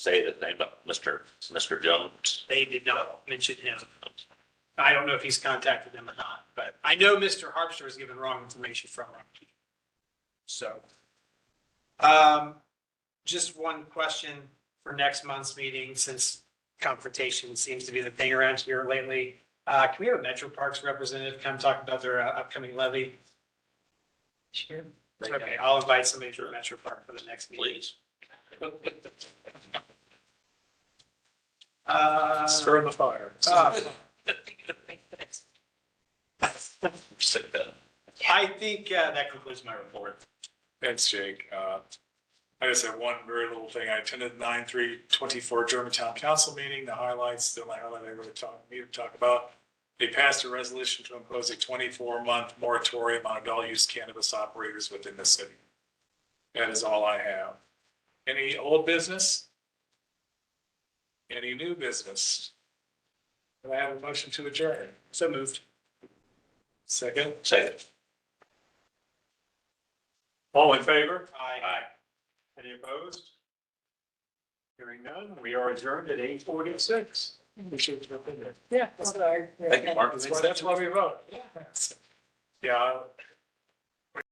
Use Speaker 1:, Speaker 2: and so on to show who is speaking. Speaker 1: say the name of Mr. Mr. Jones?
Speaker 2: They did not mention him. I don't know if he's contacted them or not, but I know Mr. Harpster was given wrong information from him. So. Um, just one question for next month's meeting, since confrontation seems to be the thing around here lately. Uh, can we have a Metro Parks representative come talk about their uh, upcoming levy? Sure. Okay, I'll invite somebody from Metro Park for the next meeting.
Speaker 1: Please.
Speaker 2: Uh,
Speaker 3: Stir the fire.
Speaker 2: uh,
Speaker 1: Say that.
Speaker 2: I think uh, that concludes my report.
Speaker 3: Thanks, Jake. Uh, I just have one very little thing. I attended nine three twenty-four Germantown Council meeting, the highlights, the only highlight I really talk, need to talk about. They passed a resolution to impose a twenty-four month moratorium on adult use cannabis operators within the city. That is all I have. Any old business? Any new business? Can I have a motion to adjourn?
Speaker 2: So moved.
Speaker 3: Second,
Speaker 1: Say it.
Speaker 3: all in favor?
Speaker 2: Aye.
Speaker 3: Any opposed? Hearing none, we are adjourned at eight forty-six. We should have been there.
Speaker 4: Yeah.
Speaker 1: Thank you, Mark.
Speaker 3: That's why, that's why we vote. Yeah,